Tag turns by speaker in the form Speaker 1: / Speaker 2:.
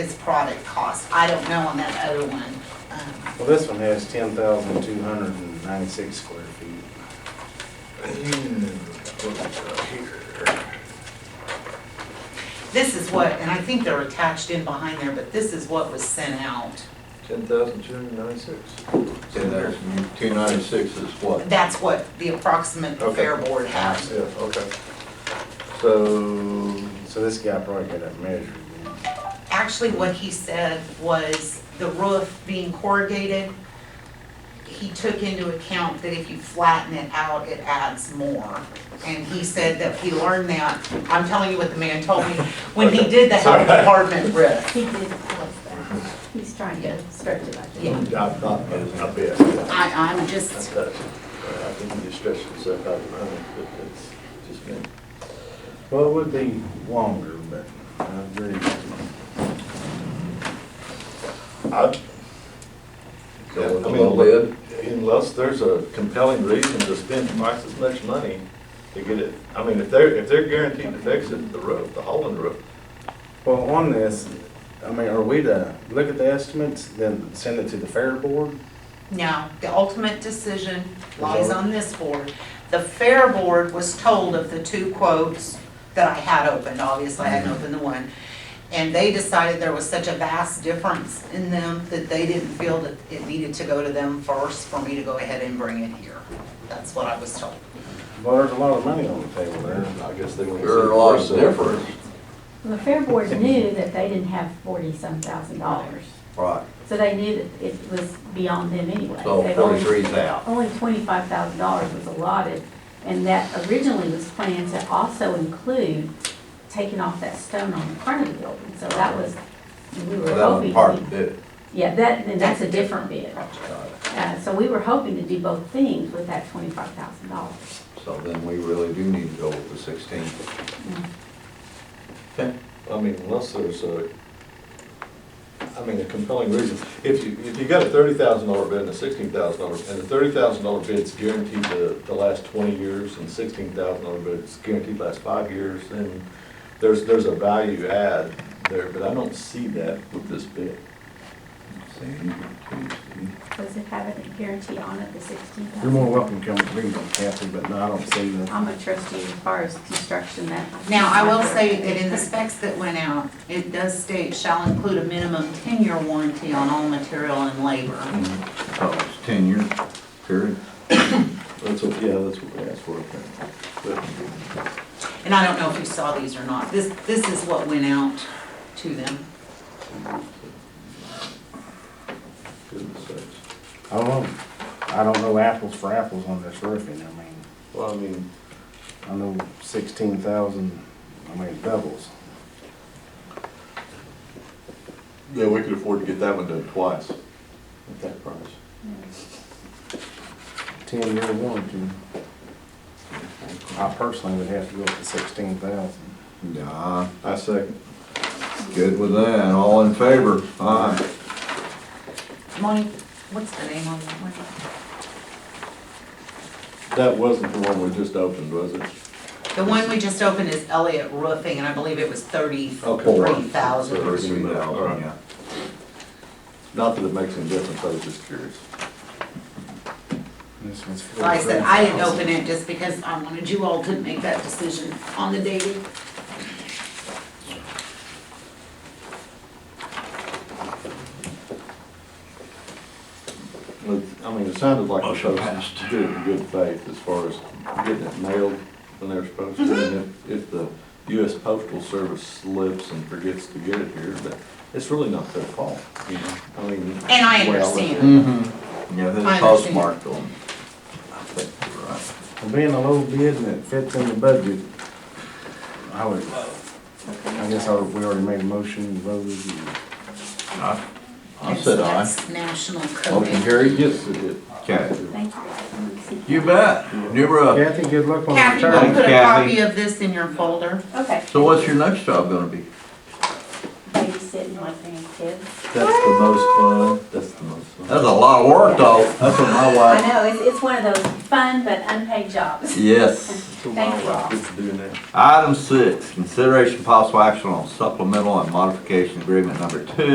Speaker 1: product cost. I don't know on that other one. Um,
Speaker 2: Well, this one has ten thousand two hundred and ninety-six square feet.
Speaker 1: This is what, and I think they're attached in behind there, but this is what was sent out.
Speaker 3: Ten thousand two hundred ninety-six.
Speaker 4: So there's two ninety-six is what?
Speaker 1: That's what the approximate the Fair
Speaker 3: Okay.
Speaker 1: Board has.
Speaker 3: Yeah, okay. So,
Speaker 2: So this guy probably got that measured. man.
Speaker 1: Actually, what he said was the roof being corrugated, he took into account that if you flatten it out, it adds more. And he said that he learned that, I'm telling you what the man told me, when he did the health department roof.
Speaker 5: He did close that. He's trying to stretch it, I
Speaker 1: Yeah.
Speaker 5: think.
Speaker 3: I'm not, not bad.
Speaker 1: I, I'm
Speaker 3: I
Speaker 1: just,
Speaker 3: uh, think you stretched yourself out, I think that it's just been.
Speaker 2: Well, it would be longer, but I agree.
Speaker 3: I
Speaker 4: Yeah, I
Speaker 3: Go with a
Speaker 4: mean,
Speaker 3: little
Speaker 4: lid.
Speaker 3: Unless there's a compelling reason to spend twice as much money to get it, I mean, if they're, if they're guaranteed to fix it, the roof, the hole in the roof,
Speaker 2: Well, on this, I mean, are we to look at the estimates, then send it to the fair board?
Speaker 1: no, the ultimate decision lies on this board. The Fair Board was told of the two quotes that I had opened, obviously I hadn't opened the one. And they decided there was such a vast difference in them that they didn't feel that it needed to go to them first for me to go ahead and bring it here. That's what I was told.
Speaker 2: Well, there's a lot of money on the table there.
Speaker 3: I guess they want to.
Speaker 4: There are a lot of difference.
Speaker 5: Well, the Fair Board knew that they didn't have forty-some thousand dollars,
Speaker 4: Right,
Speaker 5: so they knew that it was beyond them anyway.
Speaker 4: so
Speaker 5: They've only-
Speaker 4: forty-three's out.
Speaker 5: Only twenty-five thousand dollars was allotted, and that originally was planned to also include taking off that stone on the front of the building, so that was, we
Speaker 4: So
Speaker 5: were
Speaker 4: that was
Speaker 5: hoping.
Speaker 4: part of it.
Speaker 5: Yeah, that, then that's a different bid.
Speaker 4: Got it.
Speaker 5: Uh, so we were hoping to do both things with that twenty-five thousand dollars.
Speaker 4: So then we really do need to go with the sixteen.
Speaker 5: Mm-hmm.
Speaker 3: I mean, unless there's a, I mean, a compelling reason. If you, if you got a thirty thousand dollar bid and a sixteen thousand dollar, and the thirty thousand dollar bid's guaranteed the, the last twenty years, and sixteen thousand dollar bid's guaranteed the last five years, then there's, there's a value add there, but I don't see that with this bid.
Speaker 5: Does it have a guarantee on it, the sixteen thousand?
Speaker 2: You're more welcome to come read them, Kathy, but no, I don't see the,
Speaker 5: I'm a trustee as far as construction that.
Speaker 1: Now, I will say that in the specs that went out, it does state shall include a minimum ten-year warranty on all material and labor.
Speaker 4: So it's ten years, Oh, period.
Speaker 3: That's what, yeah, that's what we asked for.
Speaker 1: And I don't know if you saw these or not. This, this is what went out to them.
Speaker 3: Goodness sakes.
Speaker 2: I don't know. I don't know apples for apples on this roofing, I mean,
Speaker 3: Well, I mean,
Speaker 2: I know sixteen thousand, I mean, it doubles.
Speaker 3: yeah, we could afford to get that one done twice at that price.
Speaker 2: Ten-year warranty. I personally would have to go up to sixteen thousand.
Speaker 4: Nah,
Speaker 3: I second.
Speaker 4: good with that, all in favor? Aye.
Speaker 1: Moni, what's the name on that one?
Speaker 3: That wasn't the one we just opened, was it?
Speaker 1: The one we just opened is Elliott Roofing, and I believe it was thirty-three
Speaker 3: Okay.
Speaker 1: thousand.
Speaker 4: Thirty-three thousand, yeah.
Speaker 3: Not that it makes any difference, I was just curious.
Speaker 2: This one's.
Speaker 1: Like I said,
Speaker 2: 43,000.
Speaker 1: I didn't open it just because I wanted you all to make that decision on the day. we-
Speaker 3: But, I mean, it sounded like the
Speaker 4: Motion
Speaker 3: folks
Speaker 4: passed.
Speaker 3: did it in good faith as far as getting it mailed when they were supposed to. And if, if the US Postal Service slips and forgets to get it here, that, it's really not their fault, you know? I mean.
Speaker 1: And I
Speaker 3: well,
Speaker 1: understand.
Speaker 4: Mm-hmm. Yeah,
Speaker 1: I
Speaker 4: this
Speaker 1: understand.
Speaker 4: postmarked on. I think you're right.
Speaker 2: Well, Being a low bid and it fits in the budget, I would, I guess I, we already made a motion, voted, and
Speaker 4: I- I
Speaker 1: That's-
Speaker 4: said aye.
Speaker 1: that's National
Speaker 4: Motion
Speaker 1: Code.
Speaker 4: carried.
Speaker 3: Yes, it did.
Speaker 4: Okay.
Speaker 5: Thank you.
Speaker 4: You bet. New up.
Speaker 2: Kathy, good luck on the
Speaker 1: Kathy, I'll
Speaker 2: return.
Speaker 1: put a
Speaker 4: Kathy.
Speaker 1: copy of this in your folder.
Speaker 5: Okay.
Speaker 4: So what's your next job gonna be?
Speaker 5: Babysitting my grandkids.
Speaker 3: That's the most fun, that's the most fun.
Speaker 4: That's a lot of work though. That's what my
Speaker 5: I
Speaker 4: wife.
Speaker 5: know, it's, it's one of those fun but unpaid jobs.
Speaker 4: Yes.
Speaker 3: That's what
Speaker 5: Thank
Speaker 3: my
Speaker 5: you
Speaker 3: wife
Speaker 5: all.
Speaker 3: gets to do now.
Speaker 4: Item six, consideration possible action on supplemental and modification agreement number two